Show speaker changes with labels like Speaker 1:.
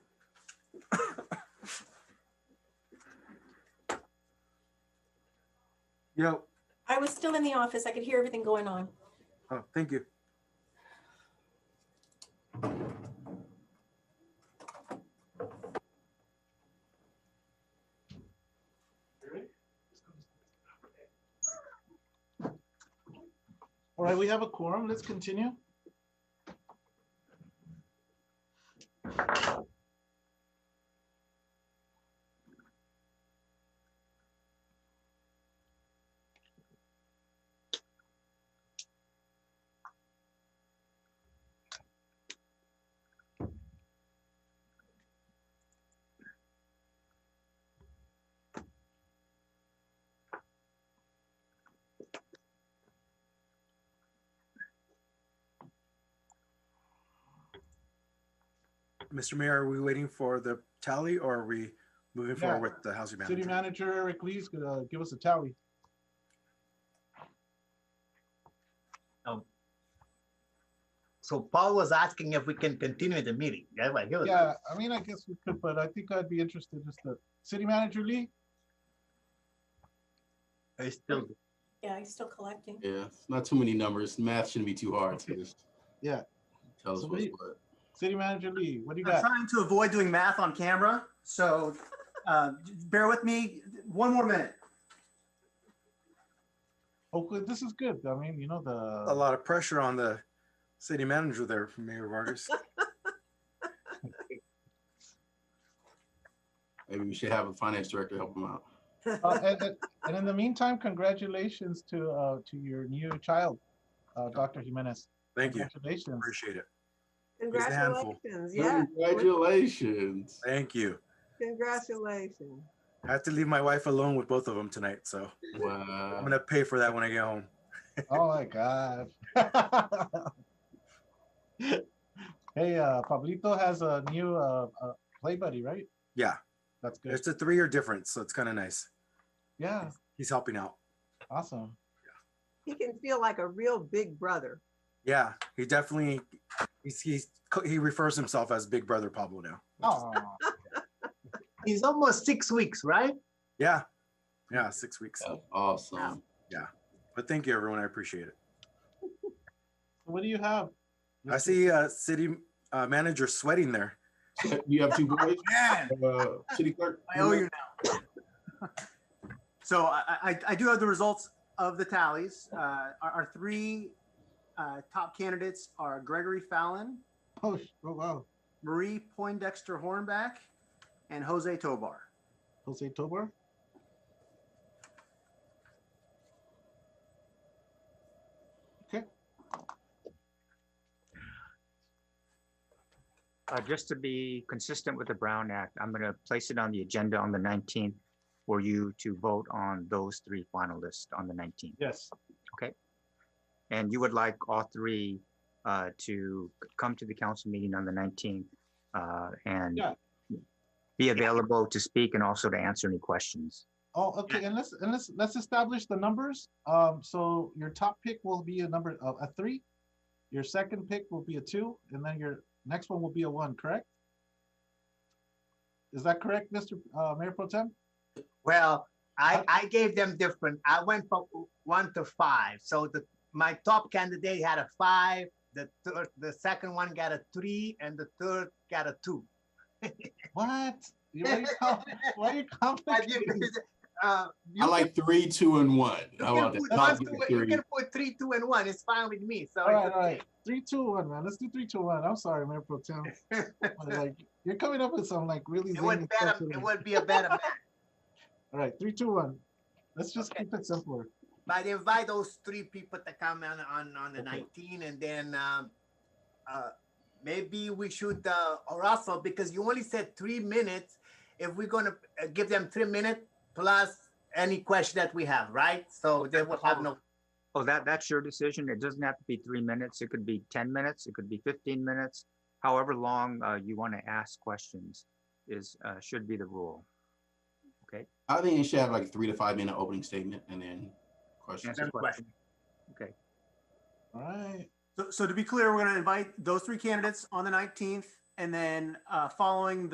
Speaker 1: Yeah,
Speaker 2: I was still in the office. I could hear everything going on.
Speaker 1: oh, thank you.
Speaker 3: All right, we have a quorum. Let's continue.
Speaker 1: Mr. Mayor, are we waiting for the tally or are we moving
Speaker 3: Yeah.
Speaker 1: forward with the housing
Speaker 3: City
Speaker 1: manager?
Speaker 3: Manager Eric Lee's gonna give us a tally.
Speaker 4: So Paul was asking if we can continue the meeting. Yeah, but he was-
Speaker 3: Yeah, I mean, I guess we could, but I think I'd be interested just to, City Manager Lee?
Speaker 4: he's still,
Speaker 2: Yeah, he's still collecting.
Speaker 5: Yeah, it's not too many numbers. Math shouldn't be too hard. So just
Speaker 3: Yeah.
Speaker 5: Tell us
Speaker 3: So
Speaker 5: what's
Speaker 3: we-
Speaker 5: what.
Speaker 3: City Manager Lee, what do you got?
Speaker 6: I'm trying to avoid doing math on camera, so uh, bear with me. One more minute.
Speaker 3: Oakland, this is Oh, good. I mean, you know,
Speaker 1: A
Speaker 3: the,
Speaker 1: lot of pressure on the city manager there, Mayor Vargas.
Speaker 5: Maybe we should have a finance director help him out.
Speaker 3: uh, and, and- and in the meantime, congratulations to, uh, to your new child, uh, Dr. Jimenez.
Speaker 1: Thank you,
Speaker 3: Congratulations.
Speaker 1: appreciate it. a handful.
Speaker 7: Congratulations, yeah,
Speaker 5: Congratulations.
Speaker 1: Thank you.
Speaker 7: congratulations.
Speaker 1: I have to leave my wife alone with both of them tonight, so I'm
Speaker 5: Wow.
Speaker 1: gonna pay for that when I get home.
Speaker 3: Oh my God. Hey, uh, Pablito has a new, uh, uh, play buddy, right?
Speaker 1: Yeah,
Speaker 3: That's good.
Speaker 1: it's a three-year difference, so it's kind of nice.
Speaker 3: Yeah,
Speaker 1: He's helping out.
Speaker 3: awesome.
Speaker 7: He can feel like a real big brother.
Speaker 1: Yeah, he definitely, he's, he's, he refers himself as Big Brother Pablo now.
Speaker 3: Oh,
Speaker 4: he's almost six weeks, right?
Speaker 1: Yeah, yeah, six weeks.
Speaker 5: That's awesome.
Speaker 1: But thank you, everyone. I appreciate it.
Speaker 3: what do you have?
Speaker 1: I see uh, city uh, manager sweating there.
Speaker 5: You have two boys?
Speaker 6: Man,
Speaker 5: Uh, City clerk?
Speaker 6: I owe you now. So I, I, I do have the results of the tallies. Uh, our, our three uh, top candidates are Gregory Fallon,
Speaker 3: Oh, sh- oh, wow.
Speaker 6: Marie Poindexter Hornback, and Jose Tobar.
Speaker 3: Jose Tobar?
Speaker 8: Uh, just to be consistent with the Brown Act, I'm going to place it on the agenda on the 19th for you to vote on those three finalists on the 19th.
Speaker 3: Yes.
Speaker 8: And you would like all three uh, to come to the council meeting on the 19th uh, and
Speaker 3: Yeah.
Speaker 8: be available to speak and also to answer any questions.
Speaker 3: Oh, okay, and let's, and let's, let's establish the numbers. Um, so your top pick will be a number, uh, a, a three. Your second pick will be a two, and then your next one will be a one, correct? Is that correct, Mr. Uh, Mayor Pro Tem?
Speaker 4: Well, I, I gave them different. I went from one to five. So the, my top candidate had a five, the third, the second one got a three, and the third got a two.
Speaker 3: What? You- Why are you com- why are you complicating?
Speaker 4: Uh, you
Speaker 5: I like three, two, and one. How
Speaker 4: You can
Speaker 5: about
Speaker 4: put
Speaker 5: that? I'll
Speaker 4: one,
Speaker 5: give
Speaker 4: two,
Speaker 5: you
Speaker 4: you
Speaker 5: three.
Speaker 4: can put three, two, and one. It's fine with me. So
Speaker 3: All right, all right. Three, two, one, man. Let's do three, two, one. I'm sorry, Mayor Pro Tem. I was Like, you're coming up with some like really.
Speaker 4: it would
Speaker 3: zany
Speaker 4: better,
Speaker 3: stuff
Speaker 4: it
Speaker 3: today.
Speaker 4: would be a better match.
Speaker 3: All right, three, two, one. Let's just
Speaker 4: Okay.
Speaker 3: keep it simpler.
Speaker 4: But invite those three people to come on on, on the
Speaker 3: Okay.
Speaker 4: 19 and then um, uh, maybe we should uh, or also because you only said three minutes if we're gonna uh, give them three minutes plus any question that we have right so they will have no
Speaker 8: Oh, that, that's your decision. It doesn't have to be three minutes. It could be 10 minutes. It could be 15 minutes. However long uh, you want to ask questions is, uh, should be the rule.
Speaker 5: I think you should have like a three to five minute opening statement and then questions.
Speaker 8: Answer question. Okay.
Speaker 3: All right.
Speaker 6: So, so to be clear, we're going to invite those three candidates on the 19th, and then uh, following